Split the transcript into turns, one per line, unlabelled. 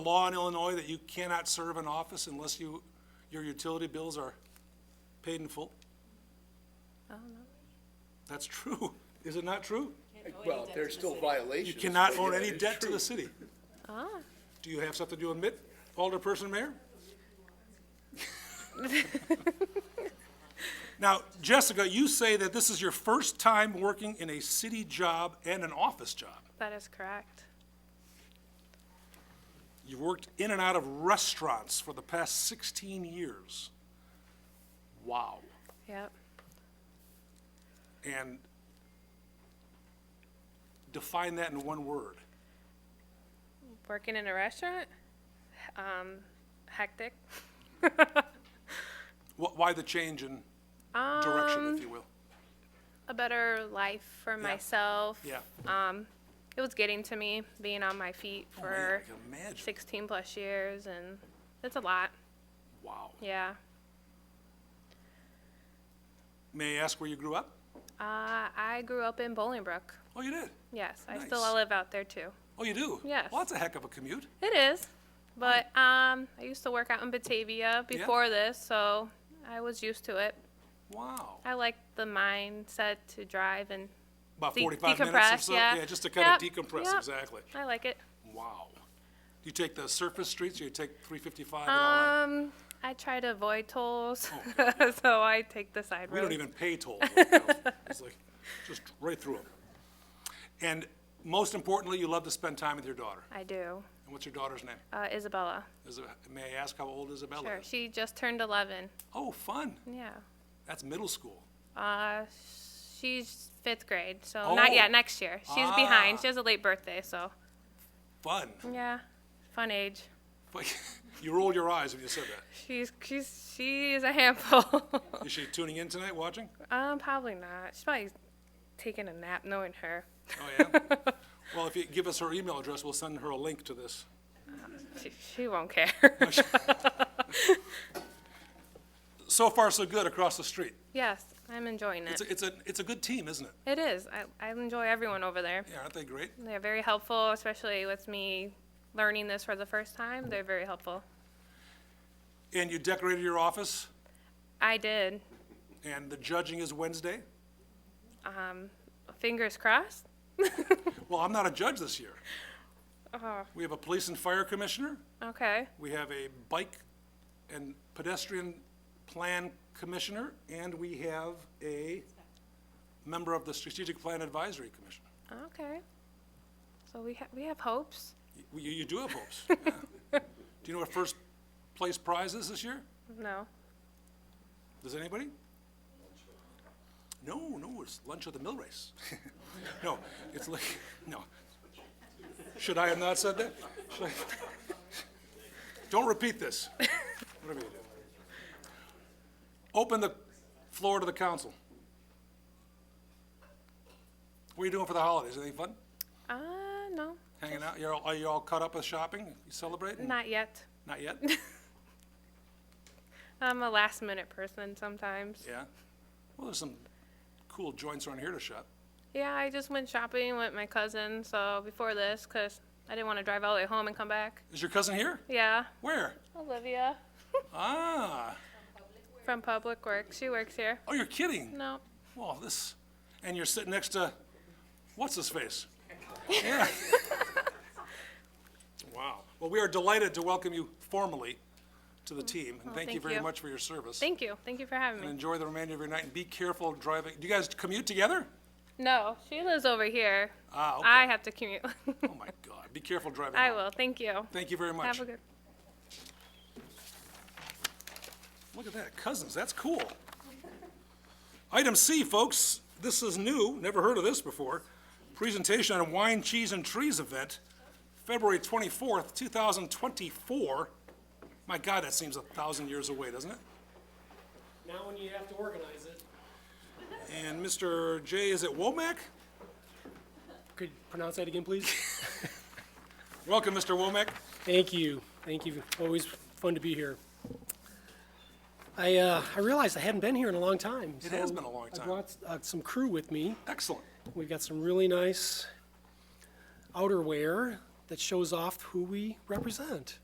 law in Illinois that you cannot serve in office unless you, your utility bills are paid in full? That's true. Is it not true?
Well, there's still
You
violations.
cannot
but
own
yeah,
any
it's
debt to
true.
the city. Do you have something to admit, Alderperson Mayor? Now, Jessica, you say that this is your first time working in a city job and an office job.
That is correct.
You've worked in and out of restaurants for the past 16 years. Wow.
Yep.
And define that in one word.
Working in a restaurant? Um, hectic.
Wh- Why the change in
Um,
direction, if you will?
A better life for myself.
Yeah.
uh, It was getting to me being on my feet
Oh, man,
for
I can imagine.
16 plus years, and it's a lot.
Wow.
Yeah.
May I ask where you grew up?
Uh, I grew up in Bolingbrook.
Oh, you did?
Yes, I still
Nice.
live out there too.
Oh, you do?
Yes.
Well, that's a heck of a commute.
It is, but um, I used to work out in Batavia before this, so I was used to it.
Wow.
I like the mindset to drive and
About
De-
45 minutes or
decompress,
so?
yeah.
Yeah, just to kind of
Yep,
decompress,
yep.
exactly.
I like it.
Wow. Do you take the surface streets or you take 355 and all that?
Um, I try to avoid tolls, so I take the side
Oh, We
roads.
don't even pay tolls. right now. It's like, just right through them. And most importantly, you love to spend time with your daughter.
I do.
And what's your daughter's name?
Uh, Isabella.
Is it- May I ask how old Isabella
Sure.
is?
She just turned 11.
Oh, fun.
Yeah.
That's middle school.
Uh, she's fifth grade, so not
Oh.
yet. Next year, she's behind.
Ah.
She has a late birthday, so
Fun.
yeah, fun age.
But You rolled your eyes when you said that.
She's she's she is a handful.
Is she tuning in tonight, watching?
um, probably not. She's probably taking a nap, knowing her.
Oh, yeah? Well, if you give us her email address, we'll send her a link to this.
She, she won't care.
So far, so good across the street.
yes, I'm enjoying
It's
it.
a, it's a, it's a good team, isn't it?
It is. I I enjoy everyone over there.
Yeah, aren't they great?
They're very helpful, especially with me learning this for the first time. They're very helpful.
And you decorated your office,
I did.
and the judging is Wednesday?
Fingers crossed.
Well, I'm not a judge this year.
Oh,
We have a police and fire commissioner.
okay.
We have a bike and pedestrian plan commissioner, and we have a member of the strategic plan advisory commission.
Okay. So we ha- we have hopes.
You, you do have hopes. yeah. Do you know what first place prize is this year?
No.
Does anybody? No, no, it's lunch at the mill race. No, it's like, no. Should I have not said that? Should I? Don't repeat this. Whatever you do. Open the floor to the council. What are you doing for the holidays? Anything fun?
Uh, no.
Hanging out? You're all, are you all caught up with shopping? You celebrating?
Not yet.
Not yet?
I'm a last minute person sometimes.
Yeah? Well, there's some cool joints around here to shop.
Yeah, I just went shopping with my cousin. So before this, cause I didn't want to drive all the way home and come back.
Is your cousin here?
Yeah.
Where?
Olivia
Ah.
from Public Works. She works here.
Oh, you're kidding.
No.
Well, this, and you're sitting next to, what's his face? Yeah. Wow. Well, we are delighted to welcome you formally to the team, and thank you
Mm-hmm. thank
very
you.
much for your service.
Thank you. Thank you for having
And
me.
enjoy the remainder of your night, and be careful driving. Do you guys commute together?
No, she lives over here.
Ah, okay.
I have to commute.
Oh, my God. Be careful driving.
I
home.
will. Thank you.
Thank you very much.
Have a good.
Look at that, cousins, that's cool. Item C, folks, this is new, never heard of this before. Presentation on a wine, cheese, and trees event, February 24th, 2024. My God, that seems a thousand years away, doesn't it?
Now when you have to organize it.
And Mr. J, is it Womack?
Could you pronounce that again, please?
Welcome, Mr. Womack.
Thank you. Thank you. Always fun to be here. I, uh, I realized I hadn't been here in a long time.
It has
so
been a long
I
time.
brought uh, some crew with me.
Excellent.
We've got some really nice outerwear that shows off who we represent.